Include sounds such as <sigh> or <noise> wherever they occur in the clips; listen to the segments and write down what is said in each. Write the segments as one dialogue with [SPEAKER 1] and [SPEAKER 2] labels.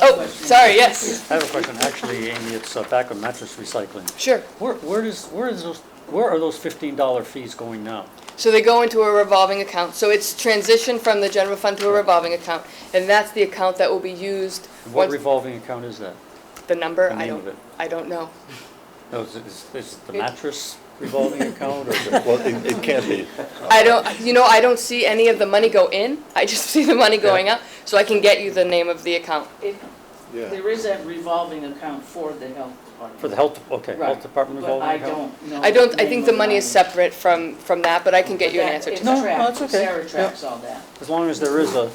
[SPEAKER 1] Oh, sorry, yes,
[SPEAKER 2] I have a question, actually, Amy, it's uh, back on mattress recycling.
[SPEAKER 1] sure.
[SPEAKER 2] Where, where does, where is those, where are those fifteen dollar fees going now?
[SPEAKER 1] So they go into a revolving account. So it's transitioned from the general fund to a revolving account, and that's the account that will be used
[SPEAKER 2] And What
[SPEAKER 1] once
[SPEAKER 2] revolving account is that?
[SPEAKER 1] the number.
[SPEAKER 2] the
[SPEAKER 1] I
[SPEAKER 2] name of
[SPEAKER 1] don't.
[SPEAKER 2] it?
[SPEAKER 1] I don't know.
[SPEAKER 2] No, is, it- is- is it the mattress revolving account or is it?
[SPEAKER 3] Well, it, it can't be.
[SPEAKER 1] I don't. You know, I don't see any of the money go in. I <laughs> just see the money going out. So I can get you the name of the account.
[SPEAKER 4] It,
[SPEAKER 3] Yeah.
[SPEAKER 4] there is that revolving account for the health department.
[SPEAKER 2] <laughs> For the health, okay, health
[SPEAKER 4] Right,
[SPEAKER 2] department revolving account?
[SPEAKER 4] But I don't know.
[SPEAKER 1] I don't. I
[SPEAKER 4] name
[SPEAKER 1] think
[SPEAKER 4] of
[SPEAKER 1] the money is separate from from that, but I can get
[SPEAKER 4] But
[SPEAKER 1] you an
[SPEAKER 4] that-
[SPEAKER 1] answer.
[SPEAKER 4] it's
[SPEAKER 1] to
[SPEAKER 2] No, no,
[SPEAKER 4] tracked.
[SPEAKER 2] it's okay.
[SPEAKER 4] Sarah tracks all that.
[SPEAKER 2] As long as there is a,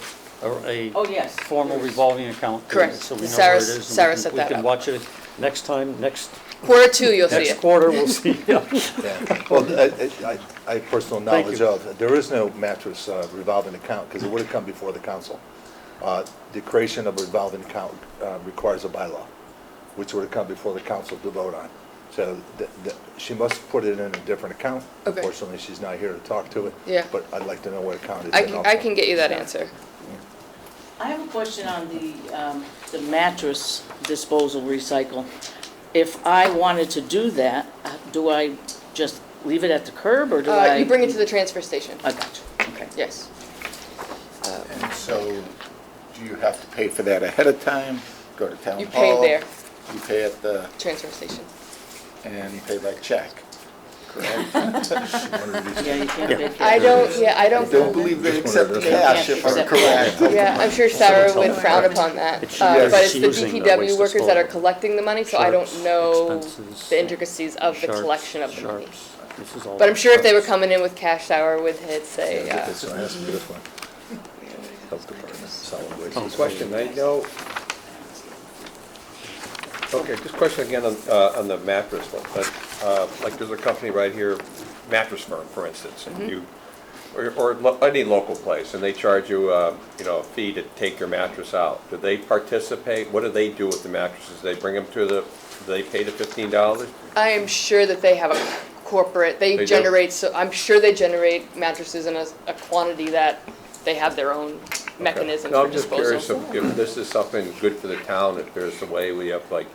[SPEAKER 2] a,
[SPEAKER 4] Oh,
[SPEAKER 2] a
[SPEAKER 4] yes.
[SPEAKER 2] formal
[SPEAKER 4] there is.
[SPEAKER 2] revolving account. there,
[SPEAKER 1] Correct.
[SPEAKER 2] So we know where
[SPEAKER 1] Sarah-
[SPEAKER 2] it is. and we
[SPEAKER 1] Sarah
[SPEAKER 2] can-
[SPEAKER 1] set that
[SPEAKER 2] We
[SPEAKER 1] up.
[SPEAKER 2] can watch it next time, next,
[SPEAKER 1] Quarter two, you'll see
[SPEAKER 2] next
[SPEAKER 1] it.
[SPEAKER 2] quarter,
[SPEAKER 1] <laughs>
[SPEAKER 2] we'll see. Yeah.
[SPEAKER 3] Yeah. Well, I, I- I, I have personal
[SPEAKER 2] Thank
[SPEAKER 3] knowledge
[SPEAKER 2] you.
[SPEAKER 3] of, there is no mattress uh, revolving account, because it would have come before the council. Uh, The creation of a revolving account uh, requires a bylaw, which would have come before the council to vote on. So th- th- she must put it in a different account.
[SPEAKER 1] Okay.
[SPEAKER 3] Unfortunately, she's not here to talk to it.
[SPEAKER 1] Yeah.
[SPEAKER 3] But I'd like to know what account it's
[SPEAKER 1] I
[SPEAKER 3] in
[SPEAKER 1] can.
[SPEAKER 3] also.
[SPEAKER 1] I can get you that answer.
[SPEAKER 4] I have a question on the, um, the mattress disposal recycle. If I wanted to do that, uh, do I just leave it at the curb or do
[SPEAKER 1] Uh,
[SPEAKER 4] I?
[SPEAKER 1] you bring it to the transfer station.
[SPEAKER 4] I got you, okay.
[SPEAKER 1] Yes.
[SPEAKER 5] And so, do you have to pay for that ahead of time? Go to town hall?
[SPEAKER 1] You pay there,
[SPEAKER 5] You pay at the,
[SPEAKER 1] transfer station.
[SPEAKER 5] and you pay by check, correct?
[SPEAKER 4] Yeah, you can't make
[SPEAKER 1] I
[SPEAKER 4] that.
[SPEAKER 1] don't. Yeah, I
[SPEAKER 5] I
[SPEAKER 1] don't.
[SPEAKER 5] don't believe they accept cash if I'm correct.
[SPEAKER 1] Yeah, I'm sure Sarah would frown upon that,
[SPEAKER 2] It's
[SPEAKER 1] uh,
[SPEAKER 5] used-
[SPEAKER 1] but it's the
[SPEAKER 2] using the waste
[SPEAKER 1] DPW workers that are
[SPEAKER 2] disposal.
[SPEAKER 1] collecting the money, so I don't
[SPEAKER 2] Sharps,
[SPEAKER 1] know
[SPEAKER 2] expenses,
[SPEAKER 1] the intricacies of the
[SPEAKER 2] Sharps,
[SPEAKER 1] collection of the money.
[SPEAKER 2] sharps. This is all
[SPEAKER 1] But I'm sure if they were
[SPEAKER 2] sharps.
[SPEAKER 1] coming in with cash sour would hit say,
[SPEAKER 3] Yeah,
[SPEAKER 1] uh,
[SPEAKER 3] This one has to be this one. Health Department, solid waste.
[SPEAKER 2] Oh.
[SPEAKER 6] Question, I know, okay, just question again on, uh, on the mattress one, but, uh, like, there's a company right here, mattress firm, for instance, and you, or, or lo- any local place, and they charge you, uh, you know, a fee to take your mattress out. Do they participate? What do they do with the mattresses? They bring them to the, do they pay the fifteen dollars?
[SPEAKER 1] I am sure that they have a corporate,
[SPEAKER 6] They
[SPEAKER 1] they
[SPEAKER 6] do?
[SPEAKER 1] generate, so, I'm sure they generate mattresses in a, a quantity that they have their own mechanism
[SPEAKER 6] No,
[SPEAKER 1] for
[SPEAKER 6] I'm just curious
[SPEAKER 1] disposal.
[SPEAKER 6] if, if this is something good for the town, if there's a way we have like,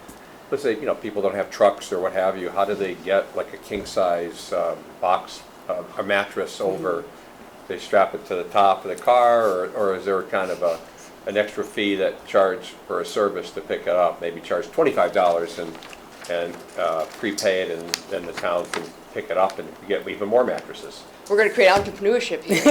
[SPEAKER 6] let's say, you know, people don't have trucks or what have you, how do they get like a king-size, um, box, uh, a mattress over? They strap it to the top of the car, or, or is there kind of a, an extra fee that charge for a service to pick it up? Maybe charge twenty-five dollars and, and, uh, prepay it and then the town can pick it up and get even more mattresses?
[SPEAKER 1] We're gonna create entrepreneurship
[SPEAKER 6] <laughs>
[SPEAKER 1] here.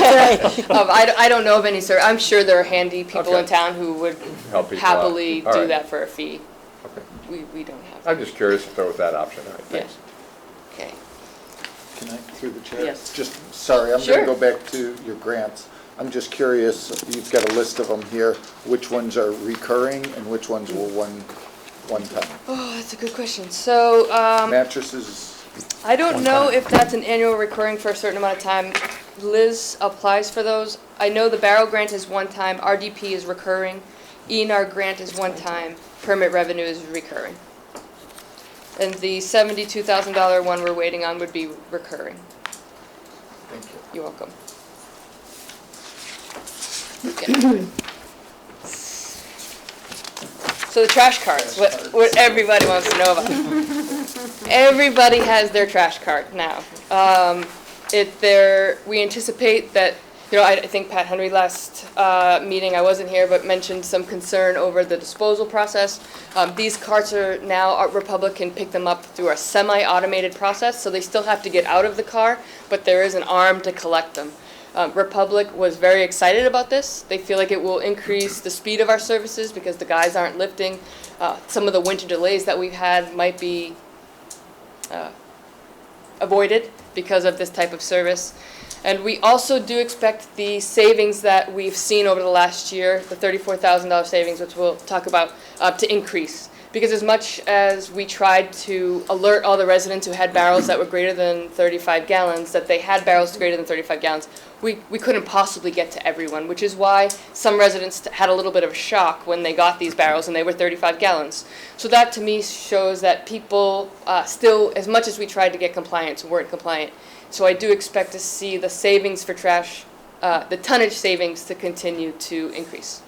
[SPEAKER 1] Uh, um, I, d- I don't know <laughs> of any, sir, I'm sure there are handy people in
[SPEAKER 6] Okay.
[SPEAKER 1] town who would
[SPEAKER 6] Help people out.
[SPEAKER 1] happily
[SPEAKER 6] All
[SPEAKER 1] do
[SPEAKER 6] right.
[SPEAKER 1] that for a fee.
[SPEAKER 6] Okay.
[SPEAKER 1] We, we don't have.
[SPEAKER 6] I'm just curious if there was that option, all right,
[SPEAKER 1] Yeah.
[SPEAKER 6] Uh, thanks.
[SPEAKER 1] Okay.
[SPEAKER 5] Can I, through the chair?
[SPEAKER 4] Yes.
[SPEAKER 5] Just, sorry, I'm
[SPEAKER 1] Sure.
[SPEAKER 5] gonna go back to your grants. I'm just curious, you've got a list of them here, which ones are recurring and which ones were one, one time?
[SPEAKER 1] Oh, that's a good question. So, um,
[SPEAKER 5] Mattresses,
[SPEAKER 1] I don't know if that's an annual recurring for a certain amount of time. Liz applies for those. I know the barrel grant is one time, RDP is recurring, ENR grant is one time, permit revenue is recurring. And the seventy-two thousand dollar one we're waiting on would be recurring.
[SPEAKER 5] thank you.
[SPEAKER 1] You're welcome. Okay. So the trash cards, what, what everybody wants to know about. Everybody has their trash cart now. Um, it, there, we anticipate that, you know, I, I think Pat Henry last, uh, meeting, I wasn't here, but mentioned some concern over the disposal process. Um, these carts are now, our Republic can pick them up through a semi-automated process, so they still have to get out of the car, but there is an arm to collect them. Um, Republic was very excited about this. They feel like it will increase the speed of our services because the guys aren't lifting. Uh, some of the winter delays that we've had might be avoided because of this type of service. And we also do expect the savings that we've seen over the last year, the thirty-four thousand dollar savings, which we'll talk about, uh, to increase. Because as much as we tried to alert all the residents who had barrels that were greater than thirty-five gallons, that they had barrels greater than thirty-five gallons, we, we couldn't possibly get to everyone, which is why some residents t- had a little bit of a shock when they got these barrels and they were 35 gallons. So that to me shows that people uh, still, as much as we tried to get compliance, weren't compliant. So I do expect to see the savings for trash, uh, the tonnage savings to continue to increase.